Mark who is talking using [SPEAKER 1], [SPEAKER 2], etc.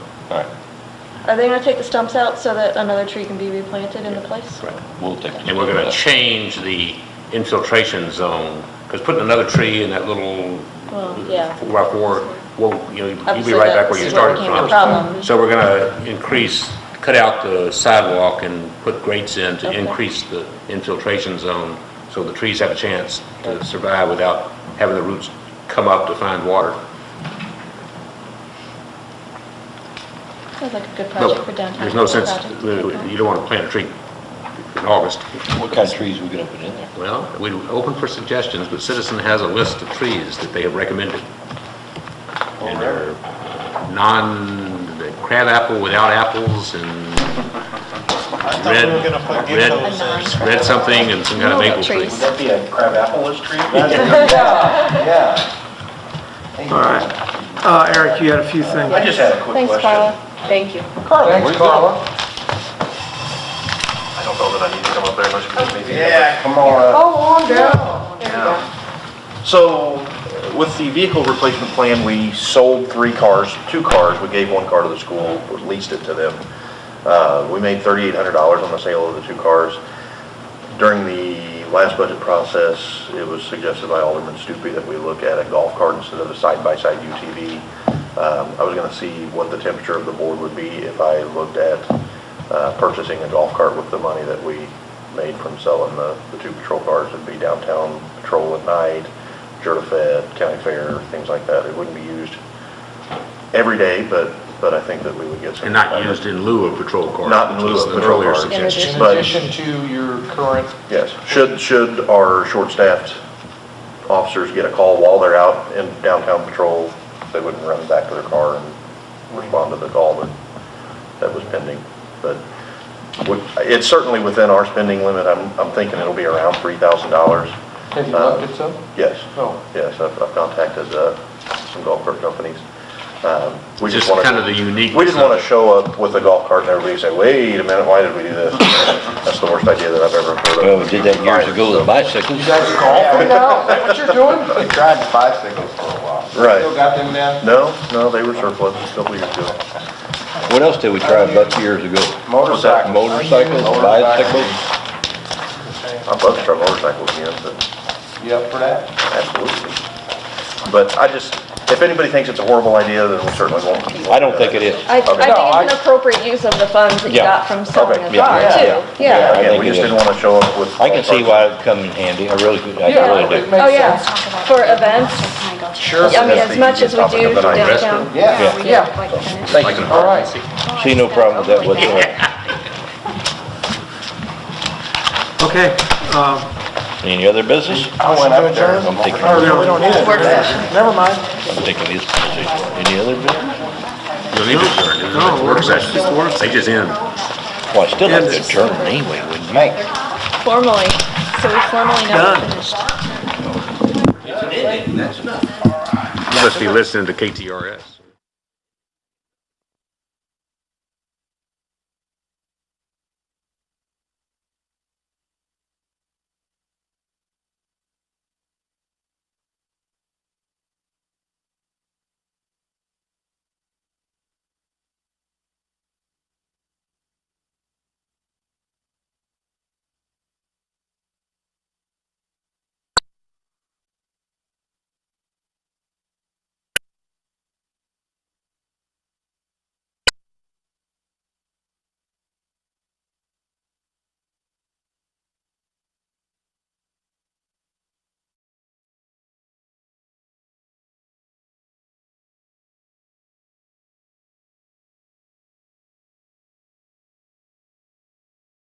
[SPEAKER 1] All right,
[SPEAKER 2] Are they gonna take the stumps out so that another tree can be replanted in the place?
[SPEAKER 3] Right.
[SPEAKER 1] we'll take.
[SPEAKER 3] And we're gonna change the infiltration zone, because putting another tree in that little
[SPEAKER 2] Well, yeah.
[SPEAKER 3] rock war, well, you know, you'd be
[SPEAKER 2] Obviously,
[SPEAKER 3] right back where you
[SPEAKER 2] that's where it
[SPEAKER 3] started
[SPEAKER 2] became a
[SPEAKER 3] from.
[SPEAKER 2] problem.
[SPEAKER 3] So we're gonna increase, cut out the sidewalk and put grates in to
[SPEAKER 2] Okay.
[SPEAKER 3] increase the infiltration zone, so the trees have a chance to survive without having the roots come up to find water.
[SPEAKER 2] Sounds like a good
[SPEAKER 3] No,
[SPEAKER 2] project for downtown.
[SPEAKER 3] There's no sense,
[SPEAKER 2] Project. um,
[SPEAKER 3] you don't wanna plant a tree in August.
[SPEAKER 1] What kind of trees we gonna put in there?
[SPEAKER 3] Well, we open for suggestions, but Citizen has a list of trees that they have recommended. And they're non, the crab apple without apples and
[SPEAKER 4] I thought we were gonna put
[SPEAKER 3] Red-
[SPEAKER 4] geckos
[SPEAKER 2] red-
[SPEAKER 4] there.
[SPEAKER 3] red something and some kind of
[SPEAKER 2] No,
[SPEAKER 3] maple tree.
[SPEAKER 2] trees.
[SPEAKER 5] That'd be a crab apple was tree? Yeah, yeah. Thank you.
[SPEAKER 6] All right. Uh, Eric, you had a few things.
[SPEAKER 5] I just had a quick question.
[SPEAKER 2] Thanks, Carla. Thank you.
[SPEAKER 5] Carla. Thanks, Carla.
[SPEAKER 7] I don't know that I need to come up there much because maybe.
[SPEAKER 5] Yeah, come on.
[SPEAKER 2] Oh, on down. There we go.
[SPEAKER 7] So with the vehicle replacement plan, we sold three cars, two cars. We gave one car to the school, leased it to them. Uh, We made $3,800 on the sale of the two cars. During the last budget process, it was suggested by Alderman Stupi that we look at a golf cart instead of a side-by-side UTV. Um, I was going to see what the temperature of the board would be if I looked at uh, purchasing a golf cart with the money that we made from selling the, the two patrol cars. It'd be downtown patrol at night, Jura Fed, county fair, things like that. It wouldn't be used every day, but, but I think that we would get some.
[SPEAKER 3] And not used in lieu of patrol cars.
[SPEAKER 7] Not in
[SPEAKER 3] which
[SPEAKER 7] lieu
[SPEAKER 3] was
[SPEAKER 7] of
[SPEAKER 3] an
[SPEAKER 7] patrol
[SPEAKER 3] earlier
[SPEAKER 7] cars.
[SPEAKER 3] suggestion.
[SPEAKER 2] In
[SPEAKER 7] But-
[SPEAKER 5] to your current.
[SPEAKER 7] Yes, should, should our short-staffed officers get a call while they're out in downtown patrol, they wouldn't run back to their car and respond to the call that, that was pending. But would- it's certainly within our spending limit, I'm, I'm thinking it'll be around three thousand dollars.
[SPEAKER 5] Have
[SPEAKER 7] you looked
[SPEAKER 5] at some? Oh.
[SPEAKER 7] Yes,
[SPEAKER 5] No.
[SPEAKER 7] yes, I've, I've contacted, uh, some golf cart companies. Um, we
[SPEAKER 3] Just
[SPEAKER 7] wanna-
[SPEAKER 3] kind of the unique.
[SPEAKER 7] we didn't want to show up with a golf cart and everybody say, wait a minute, why did we do this? That's the worst idea that I've ever heard of.
[SPEAKER 1] Well, we did that years ago with bicycles.
[SPEAKER 5] You guys are golfing now? Is that what you're doing? They tried bicycles for a while.
[SPEAKER 7] Right.
[SPEAKER 5] Still got them now?
[SPEAKER 7] No, no, they were surplus a couple years ago.
[SPEAKER 1] What else did we try about years ago?
[SPEAKER 5] Motorcycles.
[SPEAKER 1] Motorcycles, bicycles?
[SPEAKER 7] I'd love to try motorcycles again, but
[SPEAKER 5] You up for that?
[SPEAKER 7] absolutely. But I just, if anybody thinks it's a horrible idea, then we certainly won't.
[SPEAKER 1] I don't think it is.
[SPEAKER 2] I, I
[SPEAKER 3] Oh,
[SPEAKER 2] think
[SPEAKER 7] Okay.
[SPEAKER 5] No, I-
[SPEAKER 2] it's an appropriate use of the funds that you
[SPEAKER 1] Yeah.
[SPEAKER 2] got from selling
[SPEAKER 7] Okay,
[SPEAKER 2] the
[SPEAKER 1] yeah,
[SPEAKER 2] car
[SPEAKER 5] yeah,
[SPEAKER 2] too.
[SPEAKER 1] yeah.
[SPEAKER 2] Yeah.
[SPEAKER 7] Again, we
[SPEAKER 1] I think
[SPEAKER 7] just
[SPEAKER 1] it is.
[SPEAKER 7] didn't want to show up with.
[SPEAKER 1] I can see why it'd come in handy. I really could, I really
[SPEAKER 5] it
[SPEAKER 1] do.
[SPEAKER 5] makes
[SPEAKER 2] Oh, yeah,
[SPEAKER 5] sense.
[SPEAKER 2] for events.
[SPEAKER 7] Sure.
[SPEAKER 2] I mean, as much as we do for downtown.
[SPEAKER 5] Yeah, yeah.
[SPEAKER 7] Thank you.
[SPEAKER 5] All right.
[SPEAKER 1] See no problem with that whatsoever.
[SPEAKER 6] Okay, um,
[SPEAKER 1] Any other business?
[SPEAKER 5] I went up there.
[SPEAKER 1] I'm thinking,
[SPEAKER 5] Oh, no, we don't need it.
[SPEAKER 2] Work session.
[SPEAKER 5] Never mind.
[SPEAKER 1] I'm thinking this position. Any other business?
[SPEAKER 3] You'll need to turn, it's
[SPEAKER 6] No,
[SPEAKER 3] a work
[SPEAKER 6] it's
[SPEAKER 3] session.
[SPEAKER 6] just a work
[SPEAKER 3] They just end.
[SPEAKER 1] Well, I still have to turn it anyway, wouldn't you?
[SPEAKER 2] Formally, so we formally know
[SPEAKER 6] Done.
[SPEAKER 2] it's finished.
[SPEAKER 3] You must be listening to KTRS.